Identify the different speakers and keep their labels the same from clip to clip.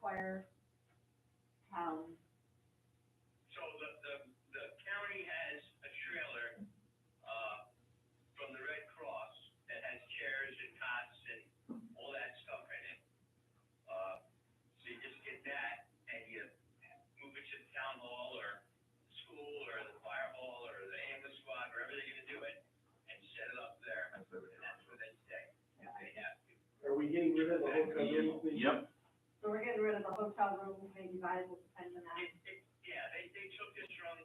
Speaker 1: fire? Um,
Speaker 2: So the, the, the county has a trailer, uh, from the Red Cross that has chairs and cots and all that stuff in it. Uh, so you just get that and you move it to the town hall or school or the fire hall or the ambulance squad, wherever they're gonna do it, and set it up there. And that's where they stay, if they have to.
Speaker 3: Are we getting rid of the whole company?
Speaker 4: Yep,
Speaker 1: so we're getting rid of the hotel room, maybe valuable depends on that,
Speaker 2: It, it, yeah, they, they took this from,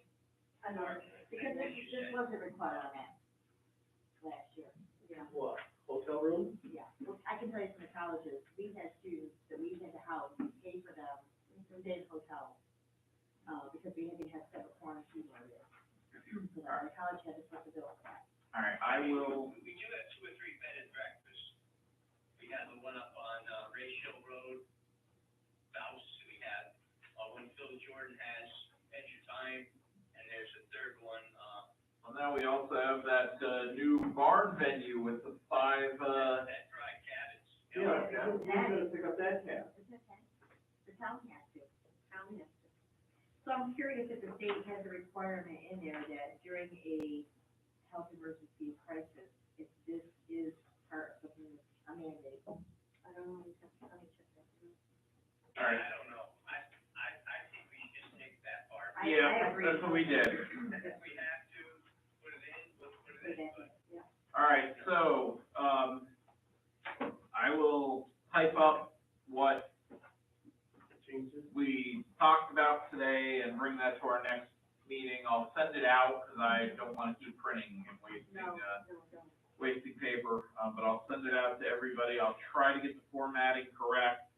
Speaker 1: another, because this, this wasn't required on that last year, yeah.
Speaker 3: What, hotel room?
Speaker 1: Yeah, well, I can tell you from the colleges, we had students that we had to house, we paid for them, we did hotel, uh, because we had to have separate quarantine areas. So that the college had to put the bill for that.
Speaker 4: all right, I will,
Speaker 2: we do have two or three bed and breakfasts. We have the one up on, uh, Ratio Road, Bouse, we have, uh, one Phil Jordan has, Adventure Time, and there's a third one, uh,
Speaker 4: well, now we also have that, uh, new barn venue with the five, uh,
Speaker 2: that Dry Cabins.
Speaker 3: Who's gonna pick up that tab?
Speaker 1: The town has to, town has to. So I'm curious if the state has a requirement in there that during a health emergency crisis, if this is part of the a mandate. I don't know, let me check that.
Speaker 4: all right.
Speaker 2: I don't know, I, I, I think we should just take that part.
Speaker 1: I- I
Speaker 4: Yeah,
Speaker 1: agree.
Speaker 4: that's what we did.
Speaker 2: If we have to, put it in, we'll put it in, but
Speaker 4: All right, so, um, I will type up what
Speaker 3: Changes?
Speaker 4: we talked about today and bring that to our next meeting. I'll send it out, cause I don't wanna keep printing and wasting,
Speaker 1: No,
Speaker 4: uh,
Speaker 1: no, no.
Speaker 4: wasting paper, um, but I'll send it out to everybody. I'll try to get the formatting correct.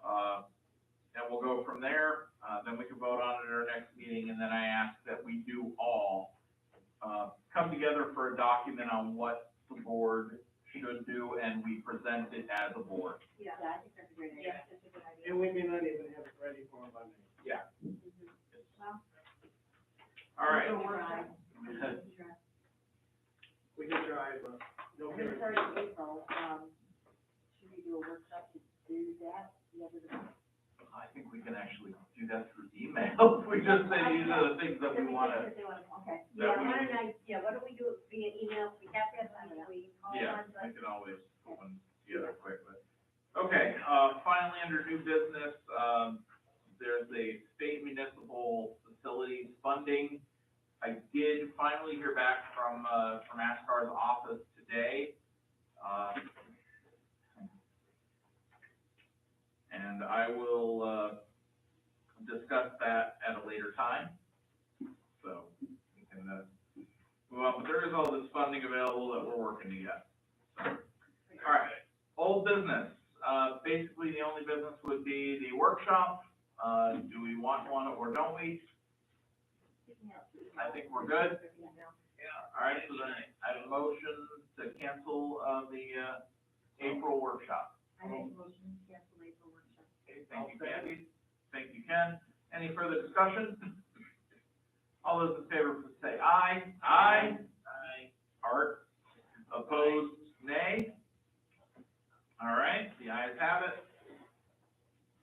Speaker 4: Uh, and we'll go from there. Uh, then we can vote on it at our next meeting, and then I ask that we do all, uh, come together for a document on what the board should do, and we present it as a board.
Speaker 1: Yeah, I think that's a great idea. That's a good idea.
Speaker 3: And we may not even have it ready for them by then.
Speaker 4: Yeah.
Speaker 1: Well,
Speaker 4: All right.
Speaker 1: we'll try. We'll try.
Speaker 3: We can try, but no
Speaker 1: And it's
Speaker 3: guarantee.
Speaker 1: already April, um, should we do a workshop to do that, the other,
Speaker 4: I think we can actually do that through email. We just say these are the things that we wanna,
Speaker 1: Okay.
Speaker 4: that
Speaker 5: Yeah,
Speaker 4: we-
Speaker 5: why don't I, yeah, why don't we do it via email, we have to have a meeting, we call
Speaker 4: Yeah,
Speaker 5: on, but
Speaker 4: we can always put one together quick, but, okay, uh, finally, under new business, um, there's a state municipal facilities funding. I did finally hear back from, uh, from Ashkar's office today, uh, and I will, uh, discuss that at a later time, so, we can, uh, move on, but there is all this funding available that we're working to get. All right, old business, uh, basically the only business would be the workshop, uh, do we want one or don't we? I think we're good,
Speaker 2: Yeah,
Speaker 4: all right, so then I have a motion to cancel, uh, the, uh, April workshop.
Speaker 1: I make a motion to cancel April workshop.
Speaker 4: Okay, thank you, Kathy, thank you, Ken, any further discussion? All those in favor, please say aye. Aye.
Speaker 2: I,
Speaker 4: Art, opposed, nay? All right, the ayes have it.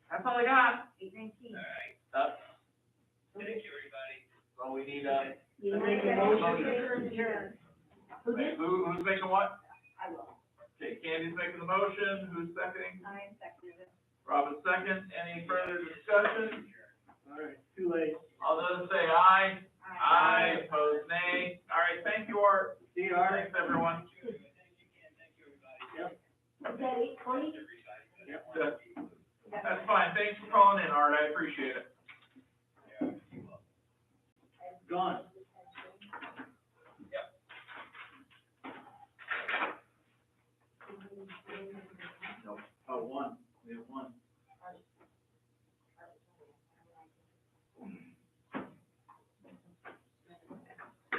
Speaker 4: That's all I got.
Speaker 1: Eight nineteen.
Speaker 2: all right,
Speaker 4: That's
Speaker 2: thank you, everybody.
Speaker 4: all we need, uh,
Speaker 1: You
Speaker 3: I make a
Speaker 4: motion.
Speaker 1: to adjourn. Who
Speaker 4: wait,
Speaker 1: did?
Speaker 4: who, who's making what?
Speaker 1: I will.
Speaker 4: Okay, Candy's making the motion, who's seconding?
Speaker 1: I seconded it.
Speaker 4: Robin's second, any further discussion?
Speaker 3: All right, too late.
Speaker 4: All those say aye.
Speaker 1: Aye.
Speaker 4: Aye, opposed, nay. All right, thank you, Art.
Speaker 3: See, all right.
Speaker 4: Thanks, everyone.
Speaker 2: Thank you, thank you, Ken, thank you, everybody.
Speaker 3: Yep.
Speaker 1: Is that eight twenty?
Speaker 2: Everybody, but I
Speaker 3: Yep.
Speaker 2: wanna be-
Speaker 4: That's fine, thanks for calling in, Art, I appreciate it.
Speaker 3: Gone.